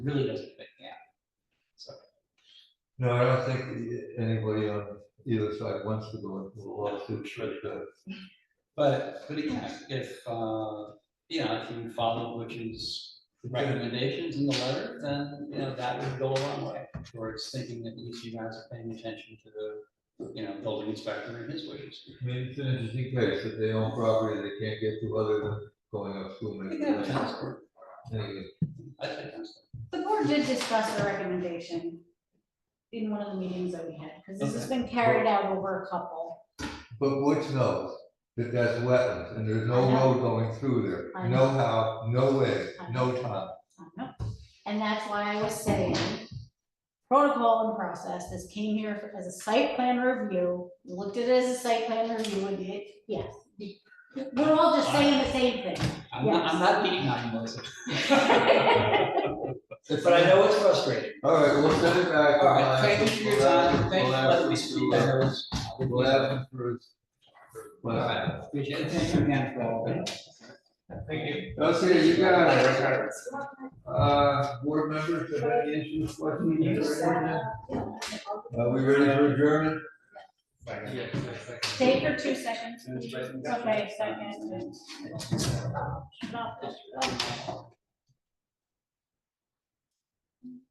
really doesn't fit the app. So, No, I don't think anybody on either side wants to go into the lawsuit, but, uh, but, but again, if, uh, you know, if you follow Butch's recommendations in the letter, then, you know, that would go a long way towards thinking that at least you guys are paying attention to the, you know, building inspector and his wishes. I mean, it's an interesting case, if they own property they can't get to other than going up I school. think that sounds good. Anyway, I think that's. The board did discuss the recommendation in one of the meetings that we had, because this has been carried out over a couple. But Woods knows that that's wetlands, and there's no I know. road going through there, I no how, no way, I no time. I don't know. uh-huh. And that's why I was saying, protocol and process, this came here as a site plan review, We looked at it as a site plan review, and it, yes. We're all just saying the same thing. I'm not, I'm not beating on you, Melissa. But I know it's frustrating. All right, we'll send it back. All right, thank you for your time, thank you for letting me speak. I know it's- We'll have them for. All right, appreciate it, thank you again for all of it. Thank you. Okay, you got, uh, board members, have any issues, questions? Are we ready for adjournment? Take for two seconds. It's Okay, second. Not this one.